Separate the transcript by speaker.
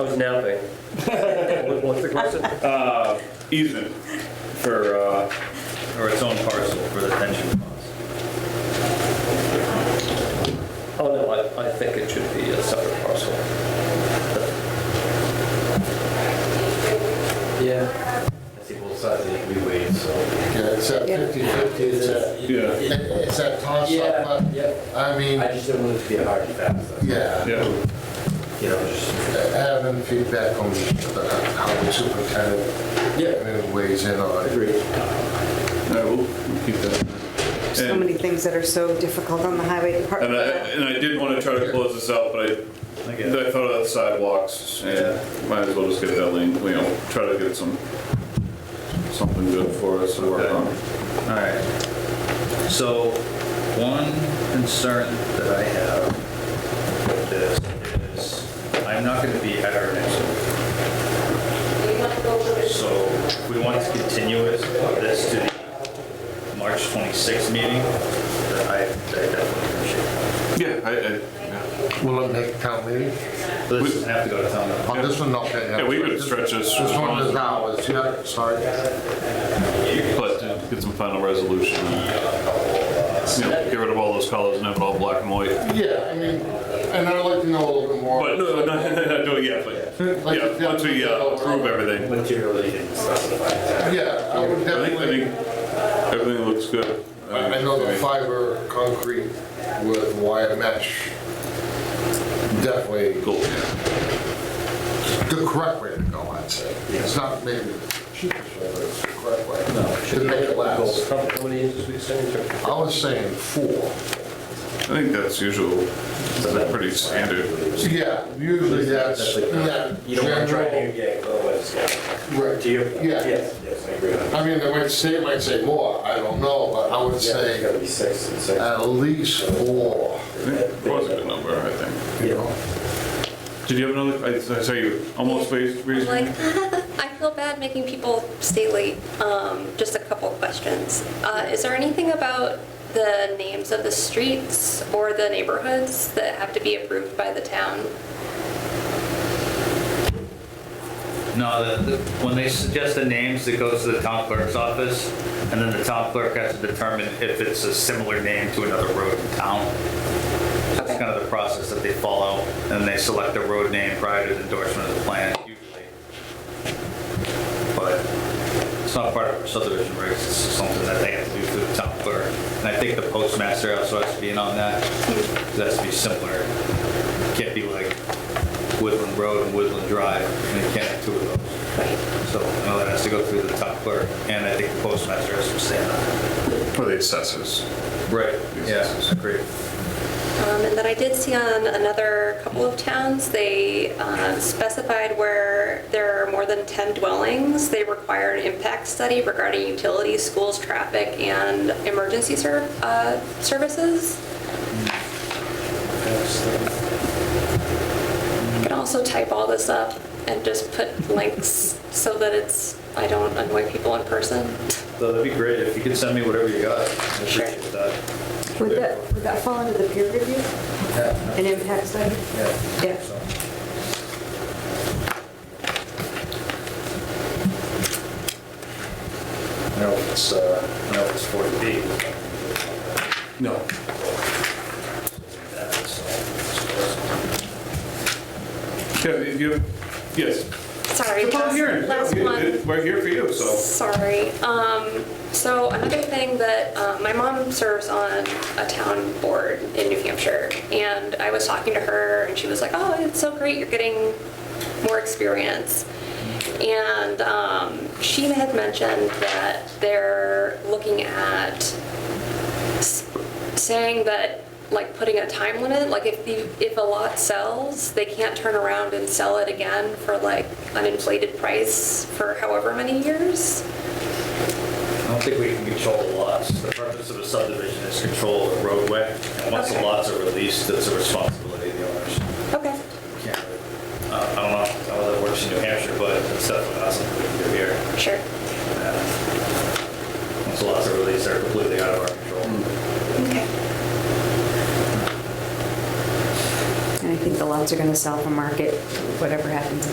Speaker 1: was napping. What- What's the question?
Speaker 2: easement for, uh, or its own parcel for the pension funds.
Speaker 1: Oh, no, I, I think it should be a separate parcel.
Speaker 3: Yeah. I see both sides of the freeway, so.
Speaker 4: Yeah, it's at
Speaker 5: Yeah.
Speaker 4: 50/50, it's at,
Speaker 2: Yeah,
Speaker 4: it's at toss
Speaker 3: Yeah,
Speaker 4: up,
Speaker 3: yeah.
Speaker 4: but, I mean,
Speaker 3: I just don't want it to be a hard and fast, that's-
Speaker 4: yeah,
Speaker 2: yeah.
Speaker 3: you know, just.
Speaker 4: having feedback on the- how the superintendent uh, weighs in on it.
Speaker 3: Agreed.
Speaker 2: All right, we'll we'll keep that.
Speaker 5: So
Speaker 2: And-
Speaker 5: many things that are so difficult on the highway
Speaker 2: And I,
Speaker 5: department.
Speaker 2: and I did want to try to close this out, but I, I thought of the sidewalks, and might as well just get that link, you know, try to get some, something good for us to work on.
Speaker 6: All right. So one concern that I have with this is I'm not going to be at our next meeting. So we want to continue it- this to the March 26th meeting. that I that I definitely appreciate.
Speaker 2: Yeah, I, I,
Speaker 4: Will it make town meeting?
Speaker 6: But this doesn't have to go to town meeting.
Speaker 4: On this one, okay.
Speaker 2: yeah, we could stretch this,
Speaker 4: This one is ours, yeah, sorry.
Speaker 2: but get some final resolution. You know, get rid of all those colors and have it all black and white.
Speaker 4: Yeah, I mean, and I'd like to know a little bit more.
Speaker 2: But, no, no, no, no, no, yeah, but, yeah, once we uh, approve everything.
Speaker 3: Material that you didn't specify.
Speaker 4: Yeah, I
Speaker 2: I
Speaker 4: would
Speaker 2: think, I
Speaker 4: definitely,
Speaker 2: think everything looks good. Uh,
Speaker 4: I I know the fiber concrete with wire mesh, definitely
Speaker 2: Cool.
Speaker 4: the correct way to go, I'd say. It's not maybe the cheapest way, but it's the correct way. To make it last.
Speaker 1: How how many inches we send to?
Speaker 4: I was saying four.
Speaker 2: I think that's usual, that's pretty standard.
Speaker 4: Yeah, usually that's, that
Speaker 3: You don't want to try to,
Speaker 4: general.
Speaker 3: yeah, otherwise, yeah.
Speaker 4: Right.
Speaker 3: Do you?
Speaker 4: Yeah.
Speaker 3: Yes, yes, I agree on that.
Speaker 4: I mean, they might say, might say more, I don't know, but I would
Speaker 3: Yeah, it's
Speaker 4: say
Speaker 3: gotta be six and six.
Speaker 4: at least four,
Speaker 2: I think It was a good number, I think.
Speaker 4: you know?
Speaker 2: Did you have another, I I saw you almost raised,
Speaker 7: I'm
Speaker 2: raised. your
Speaker 7: like,
Speaker 2: hand.
Speaker 7: I feel bad making people stay late. Um, just a couple questions. Uh, is there anything about the names of the streets or the neighborhoods that have to be approved by the town?
Speaker 6: No, the, the- when they suggest the names, it goes to the town clerk's office, and then the town clerk has to determine if it's a similar name to another road in town. That's kind of the process that they follow, and they select a road name prior to the endorsement of the plan usually. But it's not part of subdivision regs, it's something that they have to do through the town clerk. And I think the postmaster also has to be in on that, 'cause it has to be similar. Can't be like Woodland Road and Woodland Drive, and you can't have two of those. So, no, that has to go through the top clerk, and I think the postmaster has to say that.
Speaker 2: For the assessors.
Speaker 6: Right, yeah, great.
Speaker 7: Um, and then I did see on another couple of towns, they uh, specified where there are more than 10 dwellings. They require an impact study regarding utilities, schools, traffic, and emergency ser- uh, services. I can also type all this up and just put links so that it's, I don't annoy people in person.
Speaker 6: So that'd be great, if you could send me whatever you got, I appreciate that.
Speaker 5: Would that, would that fall under the peer review? An impact study? Yeah.
Speaker 6: I know it's, uh, I know it's 40B.
Speaker 2: No. Yeah, you, yes.
Speaker 7: Sorry.
Speaker 2: It's a public
Speaker 7: last-
Speaker 2: hearing.
Speaker 7: Last
Speaker 2: Yeah,
Speaker 7: one.
Speaker 2: it- We're here for you, so.
Speaker 7: Sorry. Um, so another thing that, um, my mom serves on a town board in New Hampshire. And I was talking to her and she was like, oh, it's so great, you're getting more experience. And, um, she had mentioned that they're looking at s- saying that like putting a time limit like if the if a lot sells they can't turn around and sell it again for like an inflated price for however many years
Speaker 6: I don't think we can control the lots. The purpose of a subdivision is control the roadway, and once the
Speaker 7: Okay.
Speaker 6: lots are released, it's a responsibility of the owners.
Speaker 7: okay
Speaker 6: Can't really- uh, I don't know how that works in New Hampshire, but it's definitely not something we can do here.
Speaker 7: sure
Speaker 6: Once the lots are released, they're completely out of our control.
Speaker 7: okay
Speaker 5: And I think the lots are going to sell for market, whatever happens in